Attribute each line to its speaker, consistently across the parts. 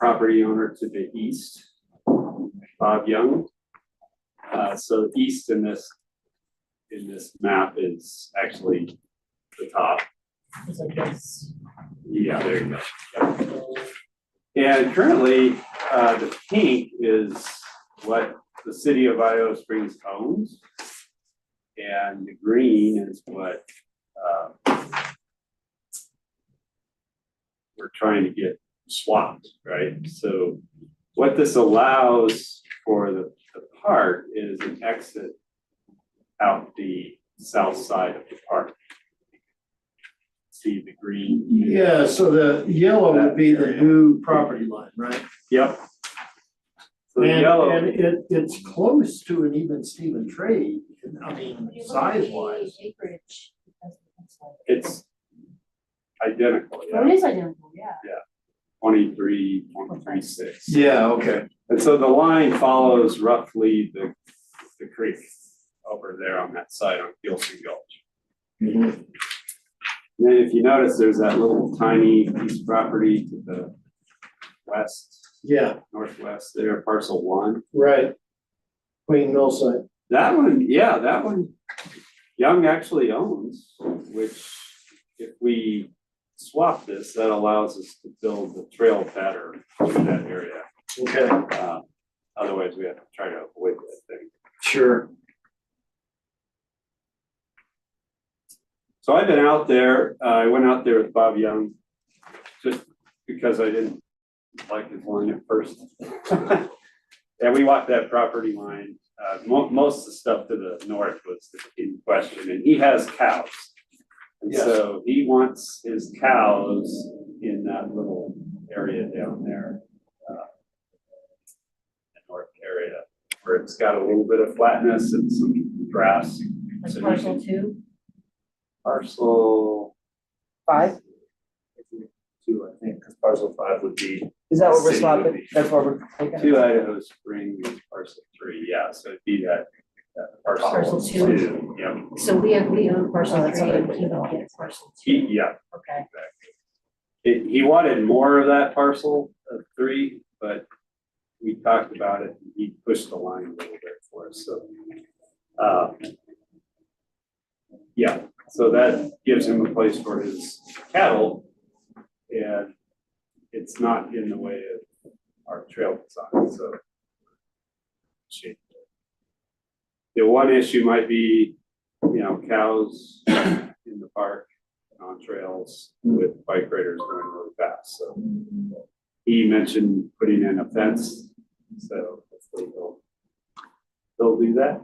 Speaker 1: property owner to the east, Bob Young. Uh, so east in this, in this map is actually the top. Yeah, there you go. Yep. And currently, uh, the pink is what the city of Idaho Springs owns. And the green is what, uh, we're trying to get swapped, right? So what this allows for the, the park is an exit out the south side of the park. See the green?
Speaker 2: Yeah, so the yellow would be the new property line, right?
Speaker 1: Yep. So the
Speaker 2: And- And
Speaker 1: yellow,
Speaker 2: it, it's close to an even Steven trade, I mean,
Speaker 3: When you look at
Speaker 2: size
Speaker 3: the
Speaker 2: wise.
Speaker 3: Acreage. it doesn't look like-
Speaker 1: it's identical,
Speaker 3: Oh,
Speaker 1: yeah,
Speaker 3: it is identical, yeah.
Speaker 1: twenty-three, twenty-three, six.
Speaker 2: Yeah, okay.
Speaker 1: And so the line follows roughly the, the creek over there on that side on Gilson Gulch.
Speaker 2: Mhm.
Speaker 1: And then if you notice, there's that little tiny piece of property to the west,
Speaker 2: Yeah,
Speaker 1: northwest there, parcel one.
Speaker 2: right. Queen Millsite,
Speaker 1: That one, yeah, that one, Young actually owns, which if we swap this, that allows us to build the trail better in that area.
Speaker 2: okay,
Speaker 1: Uh, Otherwise, we have to try to avoid that thing.
Speaker 2: sure.
Speaker 1: So I've been out there, uh, I went out there with Bob Young, just because I didn't like his line at first. And we walked that property line, uh, mo- most of the stuff to the north was in question, and he has cows. And
Speaker 2: Yes.
Speaker 1: so he wants his cows in that little area down there. uh, the North area, where it's got a little bit of flatness and some grass. So
Speaker 3: Like
Speaker 1: you
Speaker 3: parcel
Speaker 1: can-
Speaker 3: two,
Speaker 1: Parcel
Speaker 4: Five,
Speaker 1: two, I think, because parcel five would be
Speaker 4: is that what we're
Speaker 1: City would
Speaker 4: swapping?
Speaker 1: be-
Speaker 4: That's what we're taking?
Speaker 1: two Idaho Springs, parcel three, yeah, so it'd be that, that parcel
Speaker 3: Parcel two.
Speaker 1: two, yeah.
Speaker 3: so we have, we own
Speaker 4: Oh,
Speaker 3: parcel
Speaker 4: that's
Speaker 3: three
Speaker 4: what I
Speaker 3: and
Speaker 4: put
Speaker 3: he
Speaker 4: down.
Speaker 3: will get parcel
Speaker 1: He,
Speaker 3: two,
Speaker 1: yeah,
Speaker 3: okay.
Speaker 1: It- he wanted more of that parcel of three, but we talked about it, he pushed the line a little bit for us, so. uh, Yeah, so that gives him a place for his cattle, and it's not in the way of our trail design, so. Shit. The one issue might be, you know, cows in the park, and on trails with bike riders going really fast, so. He mentioned putting in a fence, so hopefully he'll, he'll do that.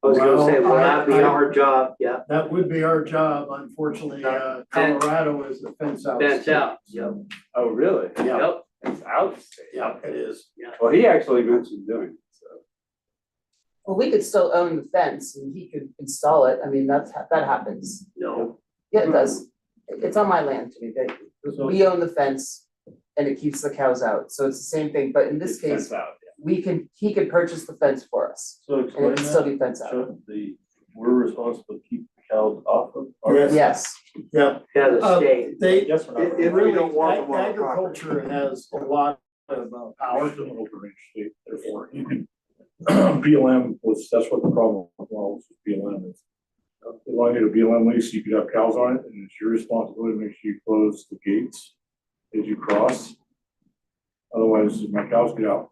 Speaker 5: I was gonna say, will
Speaker 2: Well, I-
Speaker 5: that be
Speaker 2: I-
Speaker 5: our job? Yeah,
Speaker 2: That would be our job, unfortunately, uh, Colorado is the fence out.
Speaker 5: that's out, yep,
Speaker 1: Oh, really?
Speaker 2: Yeah,
Speaker 5: yep,
Speaker 1: It's out.
Speaker 2: yeah, it is.
Speaker 1: Well, he actually mentioned doing it, so.
Speaker 4: Well, we could still own the fence and he could install it. I mean, that's, ha- that happens.
Speaker 5: no,
Speaker 4: Yeah, it does. It- It's on my land to me, that we own the fence and it keeps the cows out. So it's the same thing, but in this
Speaker 1: It's fenced
Speaker 4: case,
Speaker 1: out,
Speaker 4: we can, he can purchase the fence for us
Speaker 6: So
Speaker 4: and
Speaker 6: explain
Speaker 4: it can still
Speaker 6: that,
Speaker 4: be fence out.
Speaker 6: so the, we're responsible to keep the cows off of. our-
Speaker 2: Yes.
Speaker 4: Yes,
Speaker 2: Yeah,
Speaker 5: yeah, the
Speaker 2: Uh,
Speaker 5: state,
Speaker 2: they,
Speaker 6: Yes, we're
Speaker 5: If-
Speaker 6: not.
Speaker 5: if we don't want them
Speaker 2: Really,
Speaker 5: on
Speaker 2: ag-
Speaker 5: our property.
Speaker 2: Agriculture has a lot of uh, power.
Speaker 6: Ours don't overreach, they- therefore. you can- BLM was, that's what the problem was, with BLM is. uh, They wanted a BLM lease, you could have cows on it, and it's your responsibility to make sure you close the gates as you cross. Otherwise, my cows get out.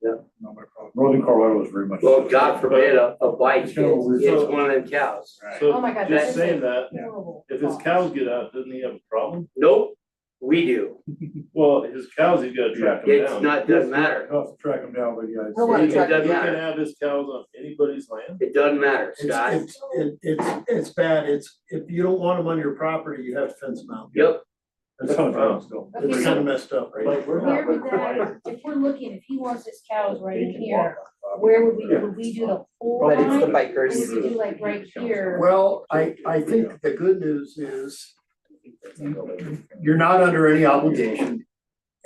Speaker 5: Yeah.
Speaker 6: Not my problem. Northern Colorado is very much.
Speaker 5: well, God forbid a, a bike
Speaker 6: It's
Speaker 5: hits,
Speaker 6: gonna
Speaker 5: hits
Speaker 6: result-
Speaker 5: one of them cows.
Speaker 1: right.
Speaker 3: Oh my
Speaker 6: So
Speaker 3: God, that
Speaker 6: just
Speaker 3: is
Speaker 6: saying
Speaker 3: a
Speaker 6: that,
Speaker 3: Horrible
Speaker 6: if his
Speaker 3: thought.
Speaker 6: cows get out, doesn't he have a problem?
Speaker 5: Nope, we do,
Speaker 6: Well, his cows, he's gotta track them down.
Speaker 5: it's not, doesn't matter,
Speaker 6: I'll have to track them down, but yeah. it's-
Speaker 3: Oh,
Speaker 4: Don't wanna
Speaker 6: he can-
Speaker 4: track 'em
Speaker 6: He can
Speaker 5: down.
Speaker 6: have his cows on anybody's land.
Speaker 5: it doesn't matter,
Speaker 2: It's,
Speaker 5: Scott,
Speaker 2: it's, it- it's, it's bad, it's, if you don't want them on your property, you have to fence them out.
Speaker 5: yep,
Speaker 6: That's not a problem, still.
Speaker 3: Okay,
Speaker 2: It's
Speaker 3: so-
Speaker 2: kind of messed up, right?
Speaker 6: Like, we're
Speaker 3: Where
Speaker 6: not
Speaker 3: would that,
Speaker 6: required.
Speaker 3: if we're looking, if he wants his cows right
Speaker 6: They
Speaker 3: in
Speaker 6: can
Speaker 3: here,
Speaker 6: walk on property.
Speaker 3: where would we, would we do the whole
Speaker 4: but it's the
Speaker 3: line? Or
Speaker 4: bikers.
Speaker 3: would we do like right here?
Speaker 2: Well, I, I think the good news is you're not under any obligation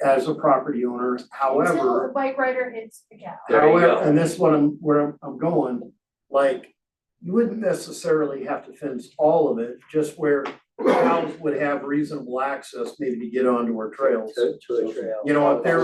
Speaker 2: as a property owner,
Speaker 3: Until
Speaker 2: however,
Speaker 3: the bike rider hits the cow.
Speaker 5: There you go.
Speaker 2: however, and this is what I'm, where I'm- I'm going, like, you wouldn't necessarily have to fence all of it, just where cows would have reasonable access maybe to get onto our trails.
Speaker 5: to, to a trail.
Speaker 2: You know, if there